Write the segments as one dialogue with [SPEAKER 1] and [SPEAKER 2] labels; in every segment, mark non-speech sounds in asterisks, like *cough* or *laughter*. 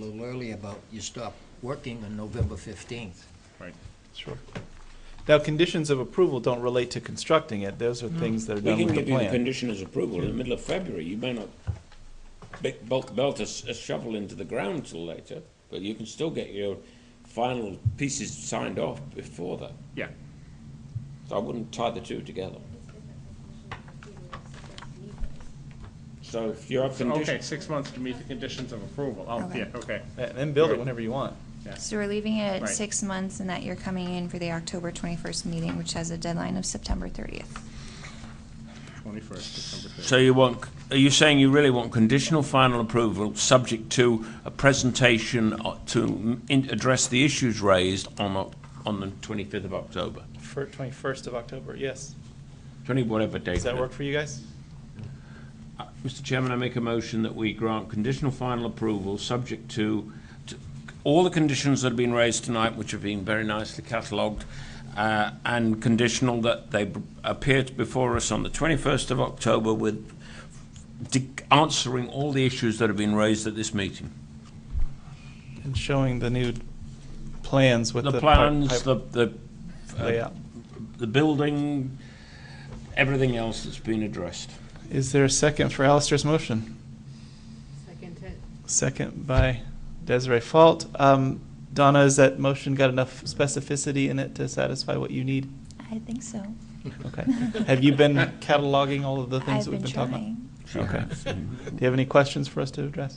[SPEAKER 1] a little earlier about you stop working on November 15th.
[SPEAKER 2] Right.
[SPEAKER 3] Sure. Now, conditions of approval don't relate to constructing it. Those are
[SPEAKER 4] Hmm.
[SPEAKER 3] things that are
[SPEAKER 4] We
[SPEAKER 3] done
[SPEAKER 4] can
[SPEAKER 3] with the
[SPEAKER 4] give you the
[SPEAKER 3] plan.
[SPEAKER 4] conditioner's approval in the middle of February, you may not be- belt, belt a s- a shovel into the ground till later, but you can still get your final pieces signed off before that.
[SPEAKER 2] Yeah.
[SPEAKER 4] So I wouldn't tie the two together. So if you have
[SPEAKER 2] Okay,
[SPEAKER 4] conditions,
[SPEAKER 2] six months to meet the conditions of approval. Oh,
[SPEAKER 5] Okay.
[SPEAKER 2] yeah, okay.
[SPEAKER 3] And then build it whenever you want.
[SPEAKER 5] So we're leaving it at
[SPEAKER 2] Right.
[SPEAKER 5] six months and that you're coming in for the October 21st meeting, which has a deadline of September 30th.
[SPEAKER 2] Twenty-first, December fifth.
[SPEAKER 4] so you want, are you saying you really want conditional final approval, subject to a presentation uh, to mm, in- address the issues raised on, Oc- on the twenty-fifth of October?
[SPEAKER 3] For 21st of October, yes.
[SPEAKER 4] Twenty, whatever date.
[SPEAKER 3] Does that
[SPEAKER 4] it-
[SPEAKER 3] work for you guys?
[SPEAKER 4] Mr. Chairman, I make a motion that we grant conditional final approval, subject to, to all the conditions that have been raised tonight, which have been very nicely catalogued, uh, and conditional that they b- appear before us on the 21st of October with de- answering all the issues that have been raised at this meeting.
[SPEAKER 3] And showing the new plans with the.
[SPEAKER 4] The
[SPEAKER 3] pipe-
[SPEAKER 4] plans,
[SPEAKER 3] pipe uh,
[SPEAKER 4] the, the,
[SPEAKER 3] Layout.
[SPEAKER 4] the building, everything else that's been addressed.
[SPEAKER 3] Is there a second for Alistair's motion?
[SPEAKER 6] Second it.
[SPEAKER 3] Second by Desiree Fault. Um, Donna, has that motion got enough specificity in it to satisfy what you
[SPEAKER 4] *laughs*
[SPEAKER 3] need?
[SPEAKER 5] I think so.
[SPEAKER 3] Okay. Have you been cataloging all of the things
[SPEAKER 5] I've
[SPEAKER 3] that we've
[SPEAKER 5] been
[SPEAKER 3] been talking about?
[SPEAKER 5] trying.
[SPEAKER 3] Okay. Do you have any questions for us to address?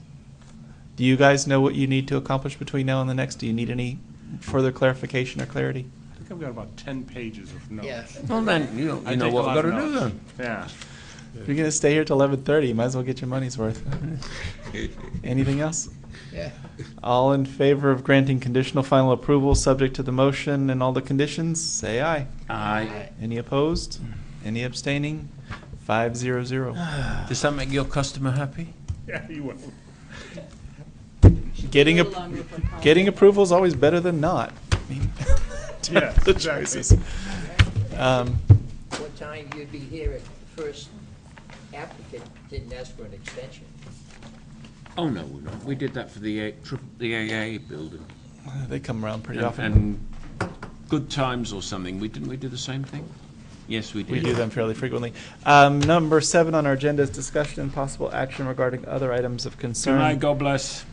[SPEAKER 3] Do you guys know what you need to accomplish between now and the next? Do you need any further clarification or clarity?
[SPEAKER 2] I think I've got about ten pages of notes.
[SPEAKER 4] Well then, you know,
[SPEAKER 2] I
[SPEAKER 4] you know
[SPEAKER 2] take a
[SPEAKER 4] what
[SPEAKER 2] lot
[SPEAKER 4] we've got
[SPEAKER 2] of
[SPEAKER 4] to do
[SPEAKER 2] notes.
[SPEAKER 4] then.
[SPEAKER 2] Yeah. *laughs*
[SPEAKER 3] If you're gonna stay here till eleven thirty, you might as well get your money's worth. Anything else?
[SPEAKER 1] *laughs* Yeah.
[SPEAKER 3] All in favor of granting conditional final approval, subject to the motion and all the conditions, say aye.
[SPEAKER 4] Aye.
[SPEAKER 3] Any opposed? Any abstaining? Five zero zero.
[SPEAKER 4] Does that make your customer happy?
[SPEAKER 2] Yeah, you will.
[SPEAKER 3] Getting
[SPEAKER 6] a
[SPEAKER 3] a,
[SPEAKER 6] little longer for Colin.
[SPEAKER 3] Getting approval is always better than not. I mean, *laughs*
[SPEAKER 2] Yes,
[SPEAKER 3] the
[SPEAKER 2] exactly.
[SPEAKER 3] choices. Um,
[SPEAKER 1] What time you'd be here if the first applicant didn't ask for an extension?
[SPEAKER 4] Oh, no, we're not. We did that for the, A- tri- the AA building.
[SPEAKER 3] They come around pretty
[SPEAKER 4] And-
[SPEAKER 3] often.
[SPEAKER 4] And Good Times or something. We, didn't we do the same thing? Yes, we did.
[SPEAKER 3] We do them fairly frequently. Um, Number seven on our agenda is discussion and possible action regarding other items of
[SPEAKER 4] Good night,
[SPEAKER 3] concern.
[SPEAKER 4] God bless.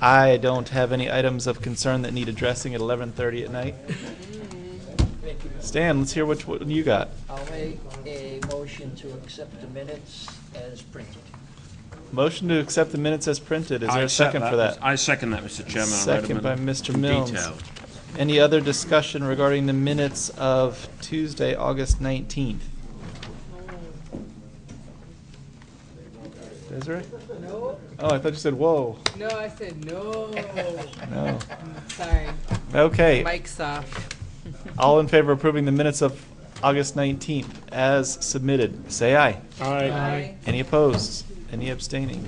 [SPEAKER 3] I don't have any items of concern that need addressing at 11:30 at night.
[SPEAKER 1] Thank you.
[SPEAKER 3] Stan, let's hear what what you got.
[SPEAKER 1] I'll make a motion to accept the minutes as printed.
[SPEAKER 3] Motion to accept the minutes as printed. Is
[SPEAKER 4] I
[SPEAKER 3] there a
[SPEAKER 4] accept
[SPEAKER 3] second for that?
[SPEAKER 4] I second that, Mr. Chairman. I read them
[SPEAKER 3] Second by
[SPEAKER 4] in-
[SPEAKER 3] Mr.
[SPEAKER 4] in
[SPEAKER 3] Milnes.
[SPEAKER 4] detail.
[SPEAKER 3] Any other discussion regarding the minutes of Tuesday, August 19th? Desiree?
[SPEAKER 6] No,
[SPEAKER 3] Oh, I thought you said, whoa,
[SPEAKER 6] no, I said no.
[SPEAKER 3] no.
[SPEAKER 6] Sorry,
[SPEAKER 3] Okay,
[SPEAKER 6] mic's off.
[SPEAKER 3] all in favor of approving the minutes of August 19th as submitted, say aye.
[SPEAKER 6] Aye.
[SPEAKER 3] Any opposed? Any abstaining?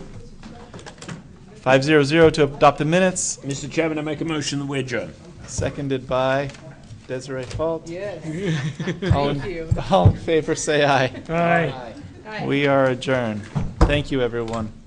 [SPEAKER 3] 500 to adopt the minutes,
[SPEAKER 4] Mr. Chairman, I make a motion that we adjourn.
[SPEAKER 3] seconded by Desiree Fault.
[SPEAKER 6] Yes.
[SPEAKER 3] All in-
[SPEAKER 6] Thank you.
[SPEAKER 3] All in favor, say aye.
[SPEAKER 1] Aye.
[SPEAKER 6] Aye.
[SPEAKER 3] We are adjourned. Thank you, everyone.